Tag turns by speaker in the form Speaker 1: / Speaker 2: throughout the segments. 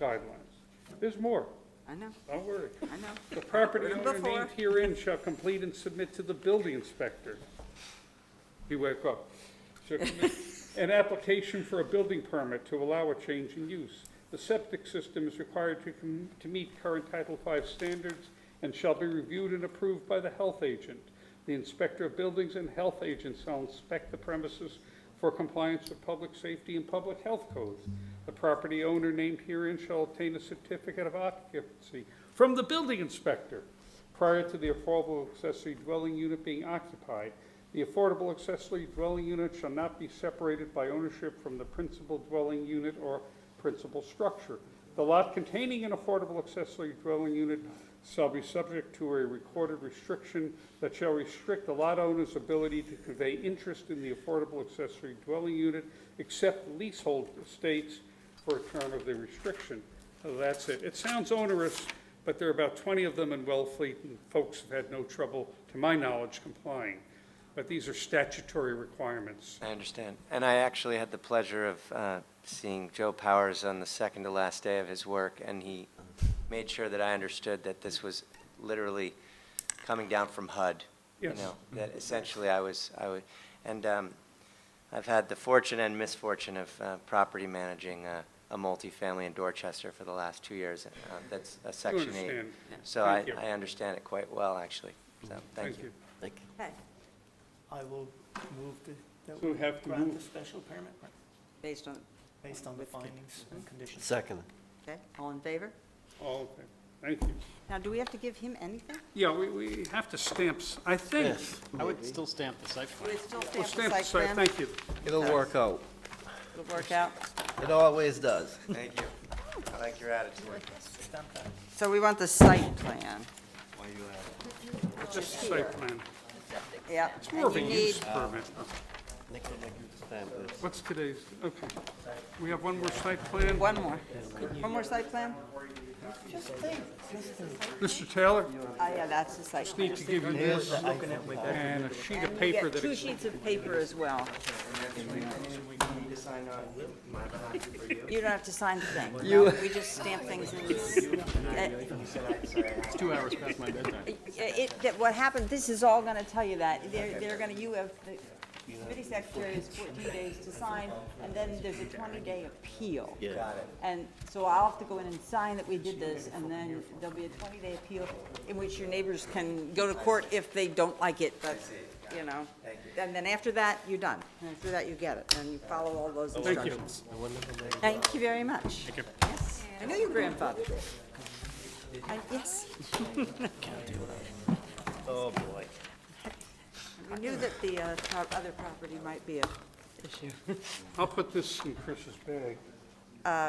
Speaker 1: guidelines. There's more,
Speaker 2: I know,
Speaker 1: don't worry.
Speaker 2: I know.
Speaker 1: The property
Speaker 2: Heard 'em
Speaker 1: owner
Speaker 2: before.
Speaker 1: named herein shall complete and submit to the building inspector. You wake up. Shall commit An application for a building permit to allow a change in use. The septic system is required to, com- to meet current Title V standards and shall be reviewed and approved by the health agent. The inspector of buildings and health agent shall inspect the premises for compliance with public safety and public health codes. The property owner named herein shall obtain a certificate of occupancy from the building inspector prior to the affordable accessory dwelling unit being occupied. The affordable accessory dwelling unit shall not be separated by ownership from the principal dwelling unit or principal structure. The lot containing an affordable accessory dwelling unit shall be subject to a recorded restriction that shall restrict the lot owner's ability to convey interest in the affordable accessory dwelling unit except leasehold estates for a term of the restriction. So That's it. It sounds onerous, but there are about 20 of them in Wellfleet, and folks have had no trouble, to my knowledge, complying. But these are statutory requirements.
Speaker 3: I understand. And I actually had the pleasure of uh, seeing Joe Powers on the second to last day of his work, and he made sure that I understood that this was literally coming down from HUD. you
Speaker 1: Yes.
Speaker 3: know, That essentially I was, I would, and um, I've had the fortune and misfortune of uh, property managing uh, a multifamily in Dorchester for the last two years. uh, That's a Section 8.
Speaker 1: understand. Yeah.
Speaker 3: So I,
Speaker 1: Thank you.
Speaker 3: I understand it quite well, actually. So, thank
Speaker 1: Thank
Speaker 3: you.
Speaker 1: you.
Speaker 2: Okay,
Speaker 4: I will move the, that
Speaker 1: So
Speaker 4: we
Speaker 1: we have to
Speaker 4: grant
Speaker 1: move.
Speaker 4: the special permit
Speaker 2: based on,
Speaker 4: based on the findings and conditions.
Speaker 5: Second.
Speaker 2: okay, all in favor?
Speaker 1: All in favor? Thank you.
Speaker 2: Now, do we have to give him anything?
Speaker 1: Yeah, we, we have to stamp, s- I think.
Speaker 5: Yes.
Speaker 6: I would still stamp the site plan.
Speaker 2: We'll still
Speaker 1: Well,
Speaker 2: stamp
Speaker 1: stamp
Speaker 2: the
Speaker 1: the
Speaker 2: site
Speaker 1: site,
Speaker 2: plan.
Speaker 1: thank you.
Speaker 5: It'll work out.
Speaker 2: It'll work out.
Speaker 5: It always does.
Speaker 3: Thank you. I like your attitude.
Speaker 4: Stamp that.
Speaker 2: So we want the site plan.
Speaker 1: It's a site plan.
Speaker 2: Yeah.
Speaker 1: It's more of a
Speaker 2: And you
Speaker 1: use
Speaker 2: need-
Speaker 1: permit.
Speaker 5: Nick will make you stamp this.
Speaker 1: What's today's, okay. We have one more site plan.
Speaker 2: One more. One more site plan?
Speaker 1: Mr. Taylor,
Speaker 2: Oh, yeah, that's the site plan.
Speaker 1: need to give you this and a sheet of
Speaker 2: And we
Speaker 1: paper
Speaker 2: get
Speaker 1: that,
Speaker 2: two
Speaker 1: ex-
Speaker 2: sheets of paper as well. You don't have to sign the thing. You. We just stamp things in. this- uh,
Speaker 6: It's two hours past my bedtime.
Speaker 2: It, that what happened, this is all gonna tell you that. They're, they're gonna, you have, the committee secretary has fourteen days to sign, and then there's a twenty-day appeal. And so I'll have to go in and sign that we did this, and then there'll be a twenty-day appeal in which your neighbors can go to court if they don't like it, but, you know. And then after that, you're done. And after that, you get it, and you follow all those instructions. Thank you very much. Thank you. Yes, I know your grandfather did. I- Yes.
Speaker 5: Oh, boy.
Speaker 2: We knew that the uh, pro- other property might be a issue.
Speaker 1: I'll put this in Chris's bag.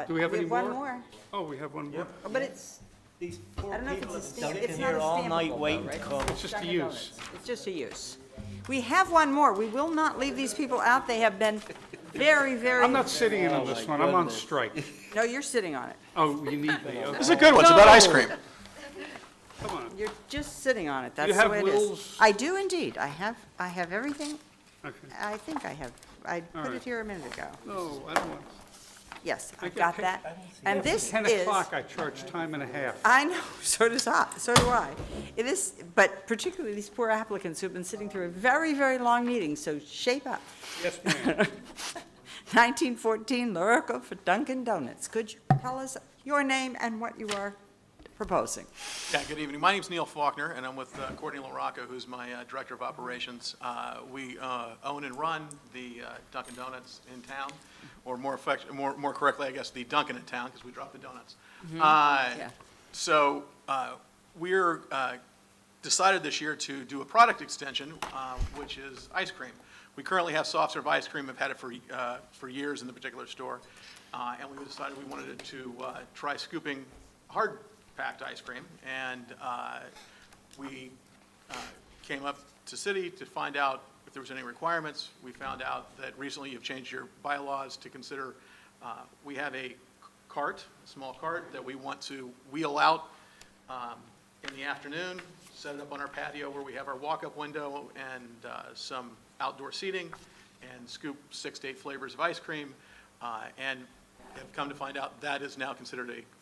Speaker 1: Do we have any
Speaker 2: Uh, one more,
Speaker 1: Oh, we have one more.
Speaker 2: Oh, but it's,
Speaker 4: These
Speaker 2: I
Speaker 4: poor
Speaker 2: don't know if
Speaker 4: people
Speaker 2: it's a
Speaker 4: have
Speaker 2: stamp,
Speaker 4: been
Speaker 2: it's
Speaker 4: sitting
Speaker 2: not
Speaker 4: here
Speaker 2: a
Speaker 4: all night
Speaker 2: stampable
Speaker 4: waiting
Speaker 2: though,
Speaker 4: to
Speaker 2: right?
Speaker 4: come.
Speaker 1: It's just a
Speaker 2: Dunkin'
Speaker 1: use.
Speaker 2: Donuts. It's just a use. We have one more. We will not leave these people out. They have been very, very,
Speaker 1: I'm not sitting in on this one, I'm on strike.
Speaker 2: no, you're sitting on it.
Speaker 1: Oh, you need me, okay,
Speaker 6: It's a good one, it's about ice cream.
Speaker 1: come on.
Speaker 2: You're just sitting on it. That's the
Speaker 1: have
Speaker 2: way it is.
Speaker 1: wills?
Speaker 2: I do indeed. I have, I have everything.
Speaker 1: Okay.
Speaker 2: I think I have. I put it
Speaker 1: right.
Speaker 2: here a minute ago.
Speaker 1: No, I don't want,
Speaker 2: Yes, I
Speaker 1: I get
Speaker 2: got
Speaker 1: pic-
Speaker 2: that. And this is.
Speaker 1: 10 o'clock, I charge time and a half.
Speaker 2: I know, so does I, so do I. It is, but particularly these poor applicants who've been sitting through a very, very long meeting, so shape up.
Speaker 1: Yes, ma'am.
Speaker 2: 1914 Lurico for Dunkin' Donuts. Could you tell us your name and what you are proposing?
Speaker 7: Yeah, good evening. My name's Neil Faulkner, and I'm with uh, Courtney LaRocco, who's my uh, Director of Operations. Uh, We uh, own and run the uh, Dunkin' Donuts in town, or more effect, more more correctly, I guess, the Dunkin' in town, because we drop the donuts. Uh,
Speaker 2: yeah.
Speaker 7: So uh, we're uh, decided this year to do a product extension, uh, which is ice cream. We currently have soft serve ice cream, have had it for, uh, for years in the particular store, uh, and we decided we wanted to uh, try scooping hard packed ice cream, and uh, we uh, came up to city to find out if there was any requirements. We found out that recently you've changed your bylaws to consider, uh, we have a cart, a small cart, that we want to wheel out um, in the afternoon, set it up on our patio where we have our walk-up window and uh, some outdoor seating, and scoop six to eight flavors of ice cream. uh, And have come to find out that is now considered a